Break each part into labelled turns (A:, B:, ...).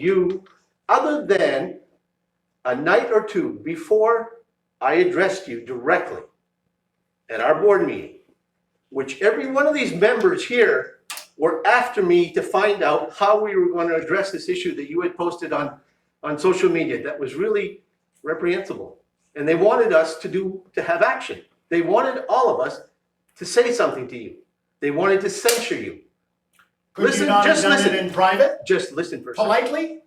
A: you, other than a night or two before I addressed you directly at our board meeting, which every one of these members here were after me to find out how we were going to address this issue that you had posted on, on social media that was really reprehensible. And they wanted us to do, to have action. They wanted all of us to say something to you. They wanted to censure you.
B: Could you
A: Listen,
B: not have
A: just
B: done it
A: listen.
B: in private,
A: Just listen for a second.
B: politely?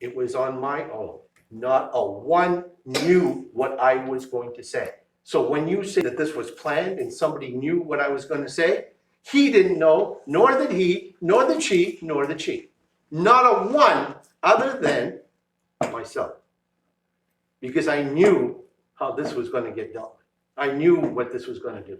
A: It was on my own. Not a one knew what I was going to say. So when you say that this was planned and somebody knew what I was going to say, he didn't know, nor did he, nor the chief, nor the chief. Not a one other than myself. Because I knew how this was going to get dealt with. I knew what this was going to do.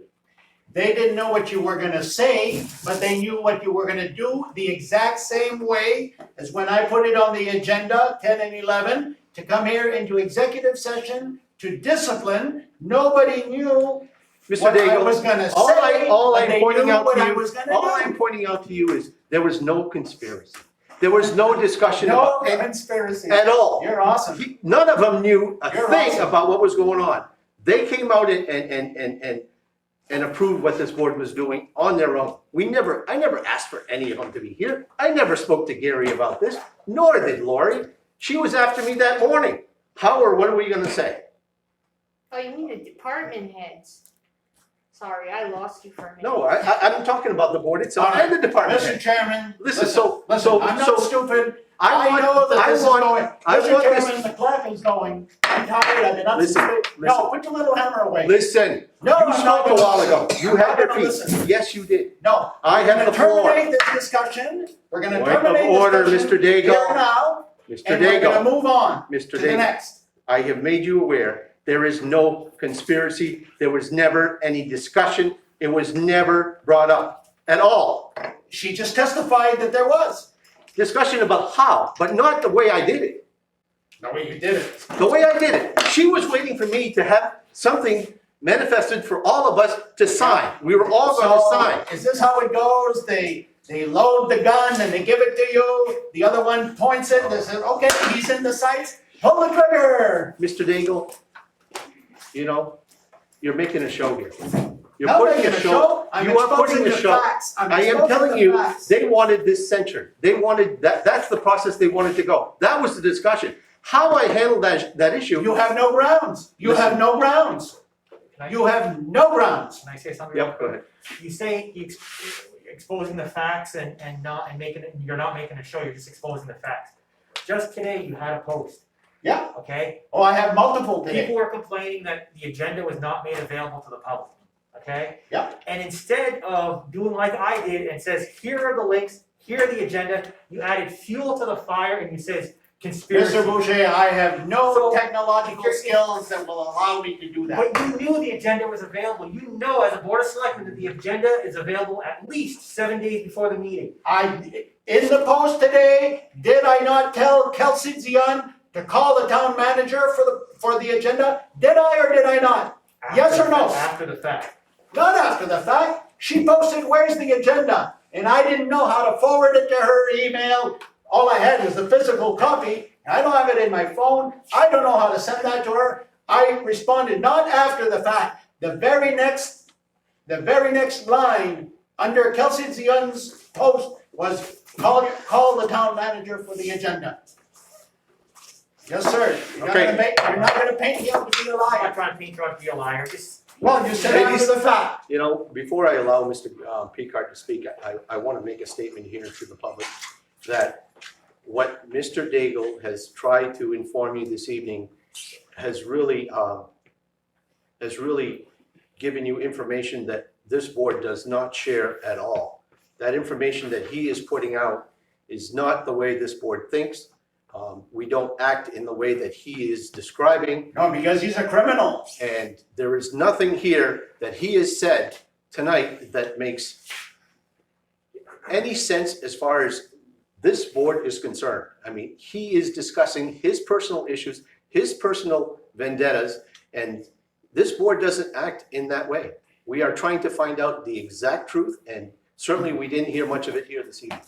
B: They didn't know what you were gonna say, but they knew what you were gonna do the exact same way as when I put it on the agenda, ten and eleven, to come here into executive session to discipline. Nobody knew
A: Mr.
B: what I
A: Daigle,
B: was gonna
A: all I,
B: say,
A: all
B: but
A: I'm
B: they
A: pointing
B: knew
A: out
B: what
A: to
B: I
A: you-
B: was gonna do.
A: all I'm pointing out to you is there was no conspiracy. There was no discussion
B: No
A: about it
B: conspiracy.
A: at all.
B: You're awesome.
A: He- None of them knew a
B: You're
A: thing
B: awesome.
A: about what was going on. They came out and, and, and, and, and, and approved what this board was doing on their own. We never, I never asked for any of them to be here. I never spoke to Gary about this, nor did Lori. She was after me that morning. Howard, what are we gonna say?
C: Oh, you mean the department heads? Sorry, I lost you for a minute.
A: No, I, I, I'm talking about the board itself and the department.
B: Mr. Chairman.
A: Listen, so- so-
B: Listen, I'm
A: so-
B: not stupid.
A: I
B: I
A: want,
B: know that
A: I
B: this is
A: want-
B: going,
A: I
B: Mr.
A: want this-
B: Chairman, the clock is going, I'm tired of it, I'm
A: Listen,
B: stupid. No, put your little hammer away.
A: listen, you
B: No, I'm
A: spoke
B: not
A: a
B: gonna
A: while
B: listen.
A: ago. You had
B: I'm
A: your
B: not gonna
A: piece.
B: listen.
A: Yes, you did.
B: No.
A: I have the
B: We're
A: floor.
B: gonna terminate this discussion, we're gonna
A: Point of
B: terminate
A: order,
B: this discussion
A: Mr. Daigle.
B: here now,
A: Mr.
B: and we're gonna
A: Daigle,
B: move on to
A: Mr.
B: the
A: Daigle,
B: next.
A: I have made you aware, there is no conspiracy. There was never any discussion. It was never brought up at all.
B: She just testified that there was.
A: Discussion about how, but not the way I did it.
B: No, you didn't.
A: the way I did it. She was waiting for me to have something manifested for all of us to sign. We were all going to
B: So,
A: sign.
B: Is this how it goes? They, they load the gun and they give it to you, the other one points it, they say, okay, he's in the sights, pull the trigger.
A: Mr. Daigle, you know, you're making a show here. You're
B: No,
A: putting
B: making
A: a show.
B: I'm
A: You are
B: exposing
A: putting
B: the
A: a show.
B: facts. I'm
A: I am
B: exposing
A: telling
B: the
A: you,
B: facts.
A: they wanted this censured. They wanted, that, that's the process they wanted to go. That was the discussion. How I handled that, that
B: You
A: issue,
B: have no grounds. You
A: Listen.
B: have no grounds.
D: Can I,
B: You have no grounds.
D: can I say something? real
A: yep, go
D: quick?
A: ahead.
D: You say you ex- exposing the facts and, and not, and making it, you're not making a show, you're just exposing the facts. Just today, you had a post.
B: Yeah.
D: Okay?
B: Oh, I have multiple today.
D: People were complaining that the agenda was not made available to the public, okay?
B: Yeah.
D: And instead of doing like I did and says, here are the links, here are the agenda, you added fuel to the fire and you says conspiracy.
B: Mr. Boucher, I have no
D: So-
B: technological skills that will allow me to do that.
D: But you knew the agenda was available. You know as a board of selectmen that the agenda is available at least seven days before the meeting.
B: I, in the post today, did I not tell Kelsey Zion to call the town manager for the, for the agenda? Did I or did I not? Yes
D: After
B: or no?
D: the- After the fact.
B: Not after the fact. She posted, where's the agenda? And I didn't know how to forward it to her email. All I had was the physical copy. I don't have it in my phone. I don't know how to send that to her. I responded, not after the fact. The very next, the very next line under Kelsey Zion's post was call, call the town manager for the agenda. Yes, sir. You're not
A: Okay.
B: gonna make, you're not gonna paint him to be a
D: I'm not
B: liar.
D: trying to paint you out to be a liar, just.
B: Well, you said
A: Ladies-
B: after the fact.
A: You know, before I allow Mr. uh, Picard to speak, I, I want to make a statement here to the public that what Mr. Daigle has tried to inform you this evening has really, um, has really given you information that this board does not share at all. That information that he is putting out is not the way this board thinks. Um, We don't act in the way that he is describing.
B: No, because he's a criminal.
A: And there is nothing here that he has said tonight that makes any sense as far as this board is concerned. I mean, he is discussing his personal issues, his personal vendettas, and this board doesn't act in that way. We are trying to find out the exact truth, and certainly we didn't hear much of it here this evening.